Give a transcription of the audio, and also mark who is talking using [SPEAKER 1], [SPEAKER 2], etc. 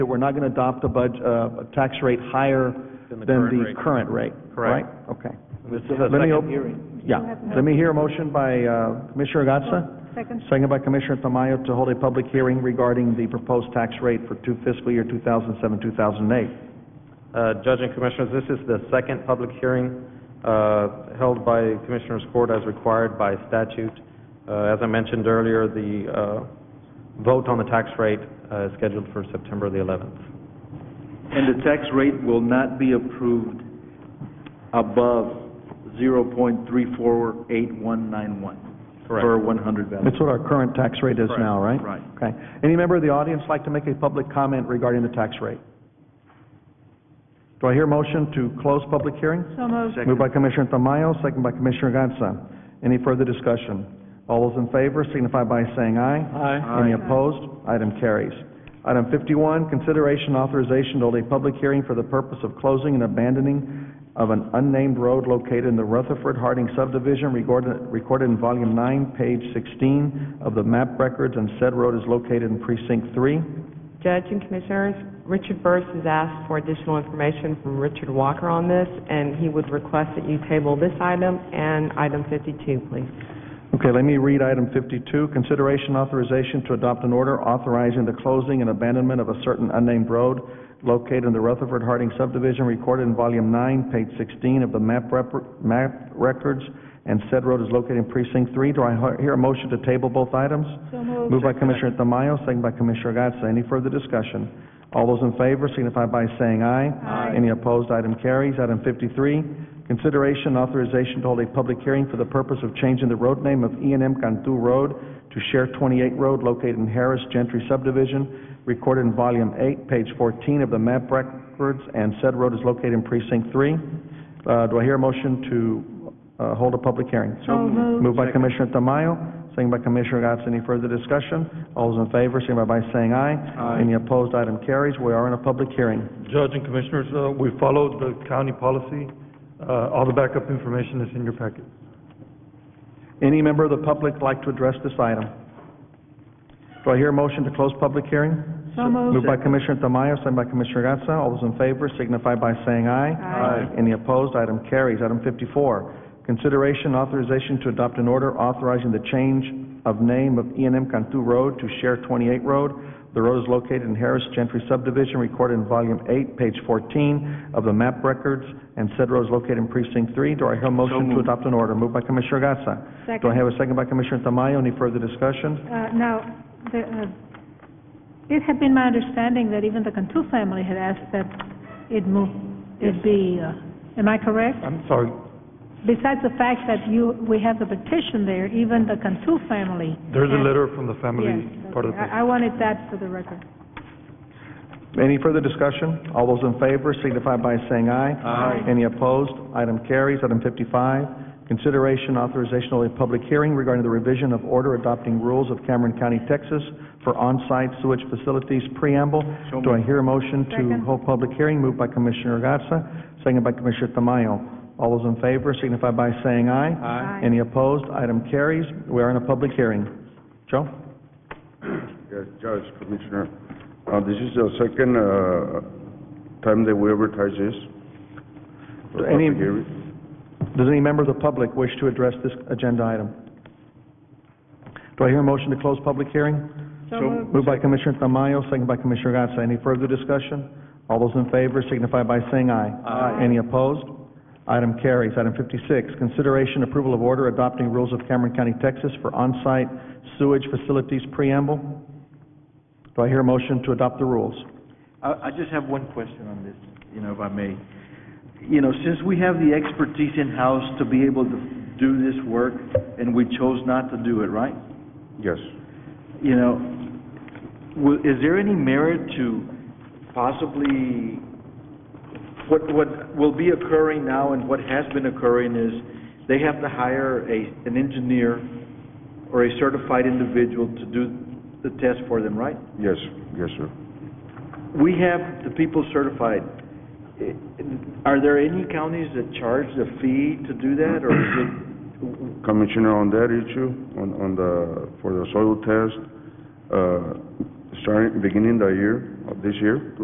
[SPEAKER 1] that we're not going to adopt a budge, uh, a tax rate higher
[SPEAKER 2] Than
[SPEAKER 1] than
[SPEAKER 2] the
[SPEAKER 1] the
[SPEAKER 2] current rate.
[SPEAKER 1] current rate, right?
[SPEAKER 2] Correct.
[SPEAKER 1] Okay.
[SPEAKER 2] This is a
[SPEAKER 1] Let me
[SPEAKER 2] second
[SPEAKER 1] op-
[SPEAKER 2] hearing.
[SPEAKER 1] Yeah. Let me hear a motion by, uh, Commissioner Gatsa,
[SPEAKER 3] Second.
[SPEAKER 1] second by Commissioner Tamayo to hold a public hearing regarding the proposed tax rate for two fiscal year two thousand seven, two thousand eight.
[SPEAKER 2] Uh, Judge and Commissioners, this is the second public hearing uh, held by Commissioners Court as required by statute. Uh, As I mentioned earlier, the uh, vote on the tax rate uh, is scheduled for September the 11th.
[SPEAKER 4] And the tax rate will not be approved above zero point three four eight one nine one.
[SPEAKER 2] Correct.
[SPEAKER 4] Per one hundred value.
[SPEAKER 1] That's what our current tax rate is now, right?
[SPEAKER 4] Right.
[SPEAKER 1] Okay. Any member of the audience like to make a public comment regarding the tax rate? Do I hear a motion to close public hearing?
[SPEAKER 3] So moved.
[SPEAKER 1] Moved by Commissioner Tamayo, second by Commissioner Gatsa. Any further discussion? All those in favor signify by saying aye.
[SPEAKER 2] Aye.
[SPEAKER 1] Any opposed? Item carries. Item fifty-one, consideration authorization to hold a public hearing for the purpose of closing and abandoning of an unnamed road located in the Rutherford Harding subdivision recorded, recorded in volume nine, page sixteen of the map records, and said road is located in precinct three.
[SPEAKER 5] Judge and Commissioners, Richard Burris has asked for additional information from Richard Walker on this, and he would request that you table this item and item 52, please.
[SPEAKER 1] Okay, let me read item fifty-two, consideration authorization to adopt an order authorizing the closing and abandonment of a certain unnamed road located in the Rutherford Harding subdivision recorded in volume nine, page sixteen of the map rep, map records, and said road is located in precinct three. Do I he- hear a motion to table both items?
[SPEAKER 3] So moved.
[SPEAKER 1] Moved by Commissioner Tamayo, second by Commissioner Gatsa. Any further discussion? All those in favor signify by saying aye.
[SPEAKER 3] Aye.
[SPEAKER 1] Any opposed, item carries. Item fifty-three, consideration and authorization to hold a public hearing for the purpose of changing the road name of E and M Cantu Road to Share Twenty-Eight Road located in Harris Gentry subdivision, recorded in volume eight, page fourteen of the map records, and said road is located in precinct three. Uh, do I hear a motion to, uh, hold a public hearing?
[SPEAKER 3] So moved.
[SPEAKER 1] Moved by Commissioner Tamayo, second by Commissioner Gatz. Any further discussion? All those in favor, signify by saying aye. Any opposed, item carries. We are in a public hearing.
[SPEAKER 6] Judge and Commissioners, uh, we followed the county policy. Uh, All the backup information is in your packet.
[SPEAKER 1] Any member of the public like to address this item? Do I hear a motion to close public hearing?
[SPEAKER 3] So moved.
[SPEAKER 1] Moved by Commissioner Tamayo, second by Commissioner Gatsa. All those in favor signify by saying aye.
[SPEAKER 3] Aye.
[SPEAKER 1] Any opposed, item carries. Item fifty-four, consideration and authorization to adopt an order authorizing the change of name of E and M Cantu Road to Share Twenty-Eight Road. The road is located in Harris Gentry subdivision, recorded in volume eight, page fourteen of the map records, and said road is located in precinct three. Do I hear a motion to adopt an order? Moved by Commissioner Gatsa. Do I
[SPEAKER 3] Second.
[SPEAKER 1] have a second by Commissioner Tamayo? Any further discussion?
[SPEAKER 3] Uh, now, the, uh, it had been my understanding that even the Cantu family had asked that it move, it be, uh, am I correct?
[SPEAKER 6] I'm sorry,
[SPEAKER 3] Besides the fact that you, we have the petition there, even the Cantu family.
[SPEAKER 6] there's a
[SPEAKER 3] asked-
[SPEAKER 6] letter from the family
[SPEAKER 3] Yes,
[SPEAKER 6] part of this.
[SPEAKER 3] I, I wanted that for the record.
[SPEAKER 1] Any further discussion? All those in favor signify by saying aye. Aye. Any opposed? Item carries. Item fifty-five, consideration authorization of a public hearing regarding the revision of order adopting rules of Cameron County, Texas for on-site sewage facilities preamble. Do I hear a motion to
[SPEAKER 3] Second.
[SPEAKER 1] hold public hearing? Moved by Commissioner Gatsa, second by Commissioner Tamayo. All those in favor signify by saying aye.
[SPEAKER 3] Aye.
[SPEAKER 1] Any opposed? Item carries. We are in a public hearing. Joe?
[SPEAKER 7] Yes, Judge, Commissioner, uh, this is the second, uh, time that we advertise this. for
[SPEAKER 1] Any-
[SPEAKER 7] public hearing.
[SPEAKER 1] Does any member of the public wish to address this agenda item? Do I hear a motion to close public hearing?
[SPEAKER 3] So moved.
[SPEAKER 1] Moved by Commissioner Tamayo, second by Commissioner Gatsa. Any further discussion? All those in favor signify by saying aye. Aye. Any opposed? Item carries. Item fifty-six, consideration approval of order adopting rules of Cameron County, Texas for on-site sewage facilities preamble. Do I hear a motion to adopt the rules?
[SPEAKER 4] I, I just have one question on this, you know, if I may. You know, since we have the expertise in-house to be able to do this work, and we chose not to do it, right?
[SPEAKER 7] Yes.
[SPEAKER 4] You know, wi- is there any merit to possibly, what, what will be occurring now and what has been occurring is they have to hire a, an engineer or a certified individual to do the test for them, right?
[SPEAKER 7] Yes, yes, sir.
[SPEAKER 4] We have the people certified. I- Are there any counties that charge the fee to do that or is it,
[SPEAKER 7] Commissioner, on that issue, on, on the, for the soil test, uh, starting, beginning the year, of this year,